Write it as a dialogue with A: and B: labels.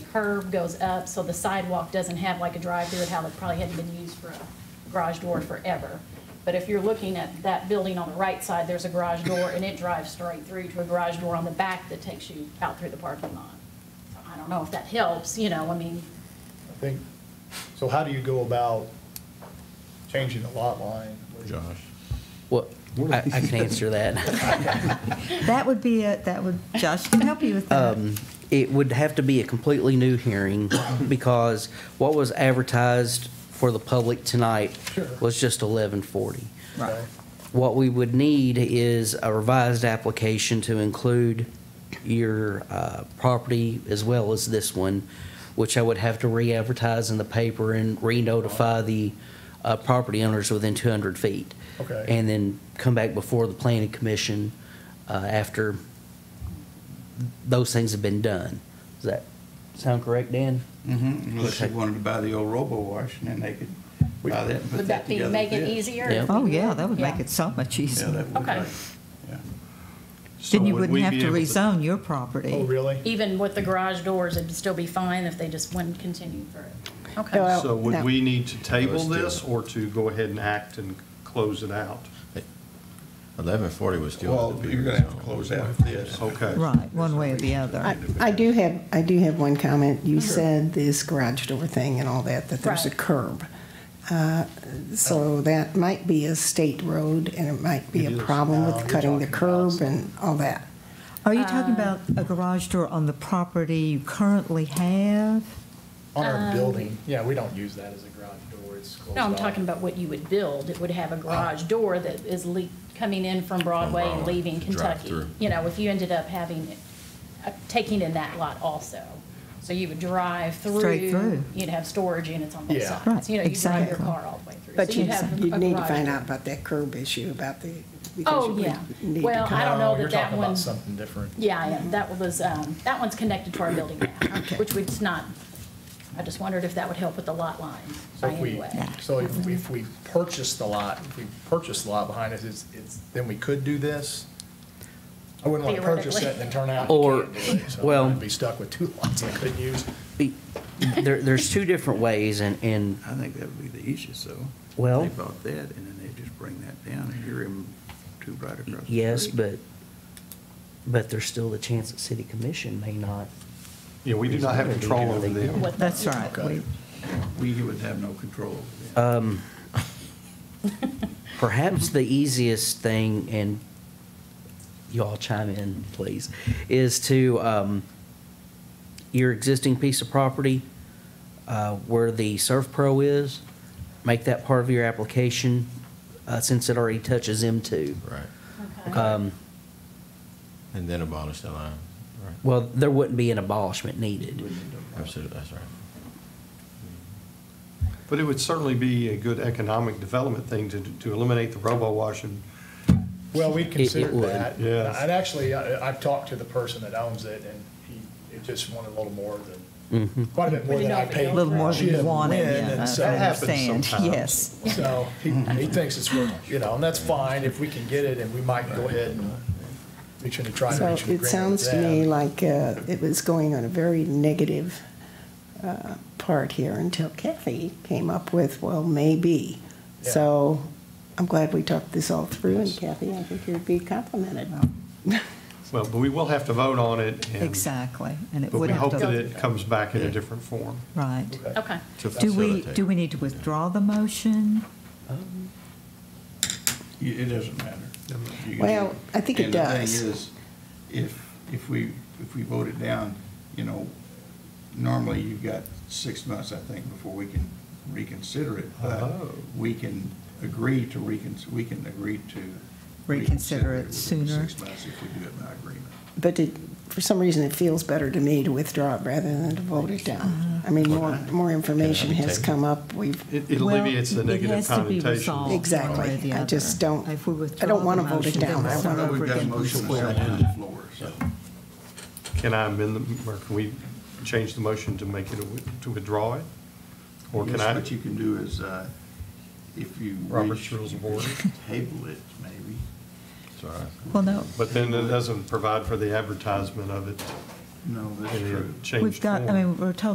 A: curb goes up, so the sidewalk doesn't have like a drive-through, it had- it probably hadn't been used for a garage door forever. But if you're looking at that building on the right side, there's a garage door, and it drives straight through to a garage door on the back that takes you out through the parking lot. So I don't know if that helps, you know, I mean,
B: I think, so how do you go about changing the lot line?
C: Josh.
D: Well, I, I can answer that.
E: That would be it, that would, Josh can help you with that.
F: Um,
D: It would have to be a completely new hearing because what was advertised for the public tonight
B: Sure.
D: was just eleven forty.
B: Right.
D: What we would need is a revised application to include your uh, property as well as this one, which I would have to re-advertise in the paper and re-notify the uh, property owners within 200 feet.
B: Okay.
D: And then come back before the planning commission uh, after those things have been done. Does that sound correct, Dan?
C: Mm-hmm, unless they
D: Okay.
C: wanted to buy the old robo-wash, and then they could buy that and put
A: would
C: that
A: that be,
C: together.
A: make it
C: Yeah.
A: easier?
D: Yeah.
A: if we
E: Oh,
A: would?
E: yeah, that would make
A: Yeah.
E: it so much
C: Yeah,
E: easier.
C: that would,
A: Okay.
C: like, yeah.
E: Then you
F: would
E: wouldn't
F: we
E: have
F: be
E: to
F: able to-
E: rezone your
B: Oh,
E: property.
B: really?
A: Even with the garage doors, it'd still be fine if they just wouldn't continue for it. Okay.
F: So would
G: no.
F: we need to table
H: Let's do
F: this
H: it.
F: or to go ahead and act and close it out?
H: Eleven forty was still.
C: Well,
H: the
C: you're gonna have to close out this.
F: Okay.
E: Right, one way or the
G: I,
E: other.
G: I do have, I do have one comment. You said this garage door thing and all that, that there's a
A: Right.
G: curb. Uh, So that might be a state road and it might be a
F: It is.
G: problem
B: No, you're
G: with cutting the
B: talking about
G: curb and all that.
E: Are you talking about a garage door on the property you currently have?
B: On our building, yeah, we don't use that as a garage door, it's closed
A: No, I'm
B: off.
A: talking about what you would build. It would
B: Ah.
A: have a garage door that is le- coming in from Broadway and
H: Broadway,
A: leaving Kentucky.
H: drive-through.
A: You know, if you ended up having, it- uh, taking in that lot also. So you would drive through,
E: Straight through.
A: you'd have storage units on both
B: Yeah.
A: sides. You know, you drive your
E: Right, exactly.
A: car all the way through.
G: But
A: So
G: you'd,
A: have a
G: you'd need to
A: garage
G: find
A: door.
G: out about that curb issue, about the. because
A: Oh,
G: you
A: yeah.
G: need to
A: Well,
G: cut-
A: I don't
B: No,
A: know that that
B: You're talking
A: one.
B: about something different.
A: Yeah, yeah, that was, um, that one's connected to our building now, which we'd not, I just wondered if that would help with the lot line by
B: So if
A: any
B: we,
A: way.
B: so if we- if we purchase the lot, if we purchase the lot behind us, it's, it's, then we could do this? I wouldn't want to purchase it and then turn out
D: Or-
B: you can't do it, so
D: well-
B: I'd be stuck with two lots I couldn't use.
D: Be- There, there's two different ways and, and
C: I think that would be the easiest, though.
D: Well-
C: They bought that, and then they just bring that down, and you're in two right across. the
D: Yes,
C: street.
D: but, but there's still the chance that city commission may not.
F: Yeah, we do not have control over them.
A: What the-
E: That's right. We-
C: We would have no control over that.
D: Perhaps the easiest thing, and y'all chime in, please, is to, um, your existing piece of property, uh, where the Surf Pro is, make that part of your application, uh, since it already touches M two.
H: Right,
A: Okay.
D: Um,
H: and then abolish the line, right,
D: well, there wouldn't be an abolishment needed.
H: absolutely, that's right.
F: But it would certainly be a good economic development thing to, to eliminate the robo-wash and
B: Well, we considered
D: would,
B: that.
F: yes.
B: And actually, I, I've talked to the person that owns it, and he, he just wanted a little more than, quite a bit more
A: We
B: than
A: know
B: I
A: if it
B: paid.
A: goes
E: A little more than
B: She
E: you
B: didn't
E: wanted,
B: win,
E: yeah,
B: and
E: I
B: so-
E: understand,
F: sometimes.
E: yes.
B: So he, he thinks it's worth, you know, and that's fine, if we can get it, and we might go ahead and, we should try to
G: So
B: reach an agreement
G: it sounds to
B: with them.
G: me like uh, it was going on a very negative uh, part here until Kathy came up with, well, maybe.
B: Yeah.
G: So I'm glad we talked this all through, and Kathy, I think you'd be complimented.
F: Well, but we will have to vote on it and.
E: Exactly, and it
F: But
E: would
F: we
E: have
F: hope
E: to.
F: that it comes back in a
H: Yeah.
F: different form.
E: Right.
A: Okay,
H: To
E: Do we,
H: facilitate.
E: do we need to withdraw the motion?
C: You- It doesn't matter. You can-
G: Well, I think it
C: And the
G: does.
C: thing is, if, if we, if we vote it down, you know, normally you've got six months, I think, before we can reconsider it. But
F: Oh.
C: we can agree to recon, we can agree to.
E: Reconsider it
C: within
E: sooner.
C: Six months if we do it by agreement.
G: But it, for some reason, it feels better to me to withdraw it rather than to vote it down. I mean, more, more information has come up, we've,
F: It it alleviates the negative connotation.
G: Exactly. I just don't-
E: If we
G: I
E: withdraw
G: don't
E: the
G: wanna vote it
E: motion, then
G: down.
E: we'll
G: I
E: start
G: wanna-
E: over
C: We've got a
E: again.
C: motion and a second on the floor, so.
F: Can I amend the, or can we change the motion to make it, a wi- to withdraw it? Or can
C: Yes,
F: I?
C: What you can do is, uh, if you.
F: Robert's
C: wish,
F: Rules of
C: you could
F: Order.
C: Table it, maybe.
H: It's all right.
E: Well, no,
F: But then it doesn't provide for the advertisement of it.
I: No, that's
C: and
I: true.
C: then change
F: We've got, I
C: form.
F: mean, we're told